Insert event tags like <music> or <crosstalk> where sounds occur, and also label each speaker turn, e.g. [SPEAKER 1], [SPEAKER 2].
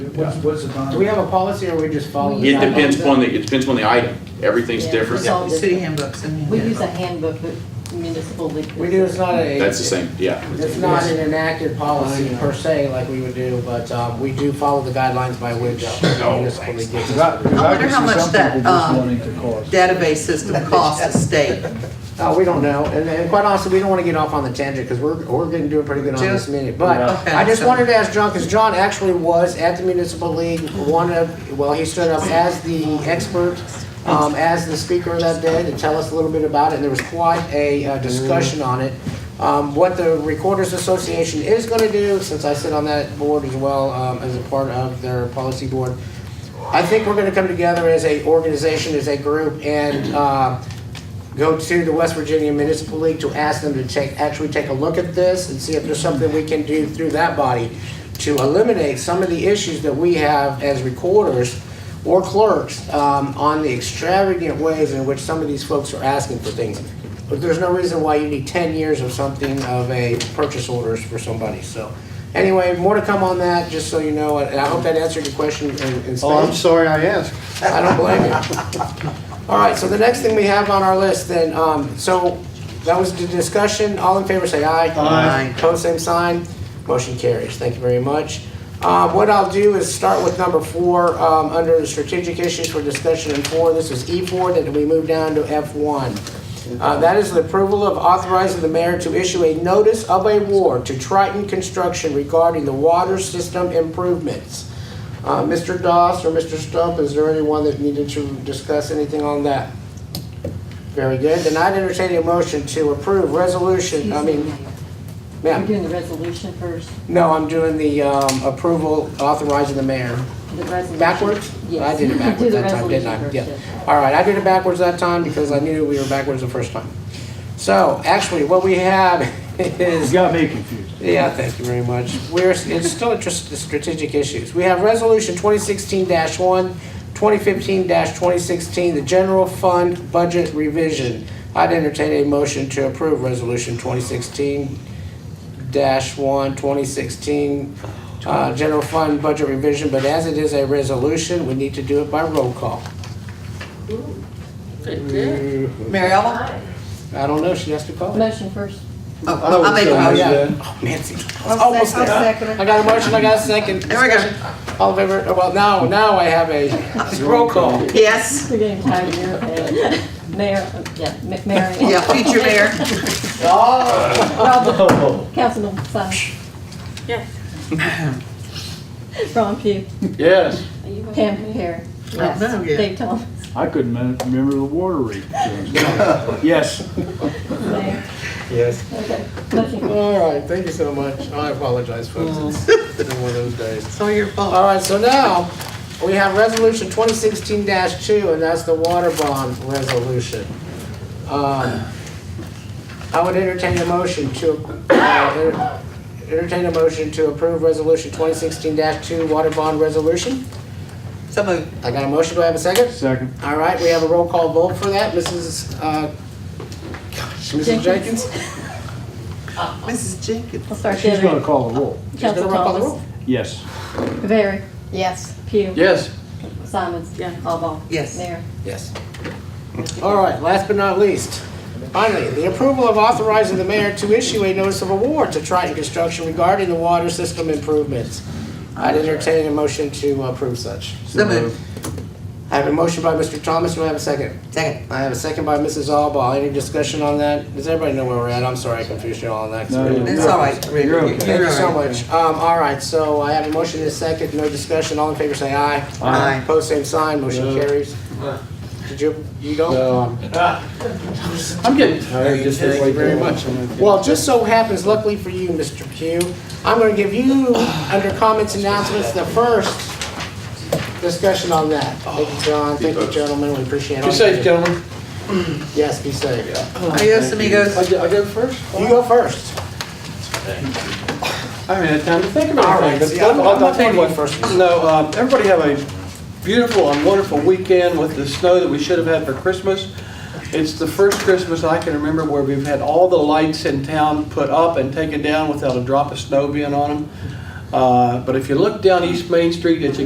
[SPEAKER 1] What's, what's the bond?
[SPEAKER 2] Do we have a policy or we just follow? the
[SPEAKER 3] It depends
[SPEAKER 2] guidelines?
[SPEAKER 3] upon the, it depends upon the item. Everything's
[SPEAKER 4] Yeah.
[SPEAKER 3] different.
[SPEAKER 4] Yeah.
[SPEAKER 5] Yeah, city handbooks and.
[SPEAKER 4] We use a handbook of municipal league.
[SPEAKER 2] We do, it's not a.
[SPEAKER 3] That's the same, yeah.
[SPEAKER 2] It's not an enacted policy per se like we would do, but um, we do follow the guidelines by which the municipal league gives
[SPEAKER 1] Cause
[SPEAKER 2] us.
[SPEAKER 1] I, 'cause
[SPEAKER 5] I
[SPEAKER 1] I
[SPEAKER 5] wonder
[SPEAKER 1] can
[SPEAKER 5] how
[SPEAKER 1] see
[SPEAKER 5] much
[SPEAKER 1] some
[SPEAKER 5] that,
[SPEAKER 1] people just
[SPEAKER 5] um,
[SPEAKER 1] wanting to cause.
[SPEAKER 5] Database system costs the state.
[SPEAKER 2] Uh, we don't know, and, and quite honestly, we don't wanna get off on the tangent, cause we're, we're getting doing pretty good on this minute, but
[SPEAKER 5] Yeah.
[SPEAKER 2] I just
[SPEAKER 5] Okay.
[SPEAKER 2] wanted to ask John, cause John actually was at the municipal league, one of, well, he stood up as the expert, um, as the speaker that day to tell us a little bit about it, and there was quite a, uh, discussion on it. Um, what the Recorders Association is gonna do, since I sit on that board as well, um, as a part of their policy board, I think we're gonna come together as a organization, as a group, and, uh, go to the West Virginia Municipal League to ask them to take, actually take a look at this and see if there's something we can do through that body to eliminate some of the issues that we have as recorders or clerks um, on the extravagant ways in which some of these folks are asking for things. But there's no reason why you need 10 years of something of a purchase orders for somebody, so. Anyway, more to come on that, just so you know, and I hope that answered your question in in space.
[SPEAKER 6] Oh, I'm sorry I asked.
[SPEAKER 2] I don't blame you. All right, so the next thing we have on our list then, um, so that was the discussion. All in favor, say aye.
[SPEAKER 5] Aye.
[SPEAKER 2] Pose same sign. Motion carries. Thank you very much. Uh, what I'll do is start with number four, um, under the strategic issues for discussion in four. This is E four, then we move down to F one. Uh, that is the approval of authorizing the mayor to issue a notice of award to Triton Construction regarding the water system improvements. Uh, Mr. Doss or Mr. Stump, is there anyone that needed to discuss anything on that? Very good. Then I'd entertain a motion to approve resolution, I mean,
[SPEAKER 4] We're
[SPEAKER 2] ma'am.
[SPEAKER 4] doing the resolution first,
[SPEAKER 2] No, I'm doing the um, approval authorizing the mayor.
[SPEAKER 4] the resolution.
[SPEAKER 2] Backwards?
[SPEAKER 4] Yes.
[SPEAKER 2] I
[SPEAKER 4] <laughs>
[SPEAKER 2] did it
[SPEAKER 4] Do
[SPEAKER 2] backwards
[SPEAKER 4] the
[SPEAKER 2] that time, didn't I?
[SPEAKER 4] resolution
[SPEAKER 2] Yeah.
[SPEAKER 4] first, yes.
[SPEAKER 2] All right, I did it backwards that time because I knew we were backwards the first time. So actually, what we have <laughs> is.
[SPEAKER 1] You got me confused.
[SPEAKER 2] Yeah, thank you very much. We're, it's still interested in strategic issues. We have Resolution 2016-1, 2015-2016, the General Fund Budget Revision. I'd entertain a motion to approve Resolution 2016-1, 2016, uh, General Fund Budget Revision, but as it is a resolution, we need to do it by roll call.
[SPEAKER 5] Mary Ellen?
[SPEAKER 2] I don't know, she has to call it.
[SPEAKER 4] Motion first.
[SPEAKER 5] Oh, I
[SPEAKER 6] would
[SPEAKER 5] made a
[SPEAKER 6] say
[SPEAKER 2] Oh,
[SPEAKER 5] motion.
[SPEAKER 2] yeah.
[SPEAKER 6] that.
[SPEAKER 2] Oh, Nancy.
[SPEAKER 5] I'll sec-
[SPEAKER 2] Almost
[SPEAKER 5] I'll
[SPEAKER 2] there.
[SPEAKER 5] second it.
[SPEAKER 2] I got a motion, I got a second.
[SPEAKER 5] There we go.
[SPEAKER 2] Discussion. All in favor, Oh, well, now, now I have a roll call.
[SPEAKER 5] Yes,
[SPEAKER 4] We're getting tired of
[SPEAKER 2] <laughs>
[SPEAKER 4] your, uh, mayor, yeah, Ma- Mary.
[SPEAKER 5] yeah, future mayor.
[SPEAKER 4] Robert,
[SPEAKER 1] Oh,
[SPEAKER 4] Councilman Simon. Yes. <laughs> Ron Pugh,
[SPEAKER 1] yes,
[SPEAKER 4] Pam Perry. Yes.
[SPEAKER 5] know yet.
[SPEAKER 4] Dave Thomas, <laughs>
[SPEAKER 1] I couldn't me- remember the water <laughs> rate. Yes,
[SPEAKER 4] mayor.
[SPEAKER 2] Yes.
[SPEAKER 4] Okay, motion carries.
[SPEAKER 2] All right, thank you so much. I apologize, folks. It's been one of those days.
[SPEAKER 5] It's all your fault.
[SPEAKER 2] All right, so now, we have Resolution 2016-2, and that's the water bond resolution. Um, I would entertain a motion to, uh, enter- entertain a motion to approve Resolution 2016-2 water bond resolution.
[SPEAKER 5] So moved.
[SPEAKER 2] I got a motion, do I have a second?
[SPEAKER 1] second.
[SPEAKER 2] All right, we have a roll call vote for that. Mrs., uh, gosh, Mrs. Jenkins?
[SPEAKER 5] Mrs. Jenkins.
[SPEAKER 4] I'll start
[SPEAKER 1] She's gonna
[SPEAKER 4] there.
[SPEAKER 1] call the roll.
[SPEAKER 2] She's
[SPEAKER 4] Council
[SPEAKER 2] gonna roll call the
[SPEAKER 4] Thomas,
[SPEAKER 2] roll.
[SPEAKER 1] Yes,
[SPEAKER 4] Barry. Yes. Pugh.
[SPEAKER 6] Yes,
[SPEAKER 4] Simons. Yeah. Alba.
[SPEAKER 5] Yes.
[SPEAKER 4] Mayor.
[SPEAKER 2] Yes. All right, last but not least, finally, the approval of authorizing the mayor to issue a notice of award to Triton Construction regarding the water system improvements. I'd entertain a motion to approve such.
[SPEAKER 5] So moved.
[SPEAKER 2] I have a motion by Mr. Thomas, do I have a second?
[SPEAKER 5] Second.
[SPEAKER 2] I have a second by Mrs. Alba. Any discussion on that? Does everybody know where we're at? I'm sorry I confused you all on that. 'cause
[SPEAKER 1] No,
[SPEAKER 2] we didn't-
[SPEAKER 1] you're
[SPEAKER 5] It's all right, Rita.
[SPEAKER 1] You're okay.
[SPEAKER 2] Thank you so
[SPEAKER 5] all right.
[SPEAKER 2] much. Um, all right, so I have a motion and a second, no discussion, all in favor say aye.
[SPEAKER 5] Aye.
[SPEAKER 2] Post same sign, motion
[SPEAKER 1] No.
[SPEAKER 2] carries. Did you, you don't?
[SPEAKER 1] so,
[SPEAKER 6] I'm getting tired just this
[SPEAKER 2] Thank
[SPEAKER 6] way.
[SPEAKER 2] you very much. Well, it just so happens luckily for you, Mr. Pugh, I'm gonna give you, under comments and announcements, the first discussion on that. Thank you, John, thank you, gentlemen, we appreciate all.
[SPEAKER 6] Be
[SPEAKER 2] you
[SPEAKER 6] safe,
[SPEAKER 2] do.
[SPEAKER 6] gentlemen.
[SPEAKER 2] Yes, be safe.
[SPEAKER 5] Adios, amigos.
[SPEAKER 6] I go- I go first?
[SPEAKER 2] You go first.
[SPEAKER 6] I haven't had time to think
[SPEAKER 2] All
[SPEAKER 6] about
[SPEAKER 2] right,
[SPEAKER 6] anything.
[SPEAKER 2] see,
[SPEAKER 6] but
[SPEAKER 2] I thought- I
[SPEAKER 6] I'll- I'll
[SPEAKER 2] thought
[SPEAKER 6] tell you
[SPEAKER 2] you
[SPEAKER 6] what.
[SPEAKER 2] went first.
[SPEAKER 6] No, um, everybody have a beautiful and wonderful weekend with the snow that we should have had for Christmas. It's the first Christmas I can remember where we've had all the lights in town put up and taken down without a drop of snow being on them. Uh, But if you look down East Main Street, it's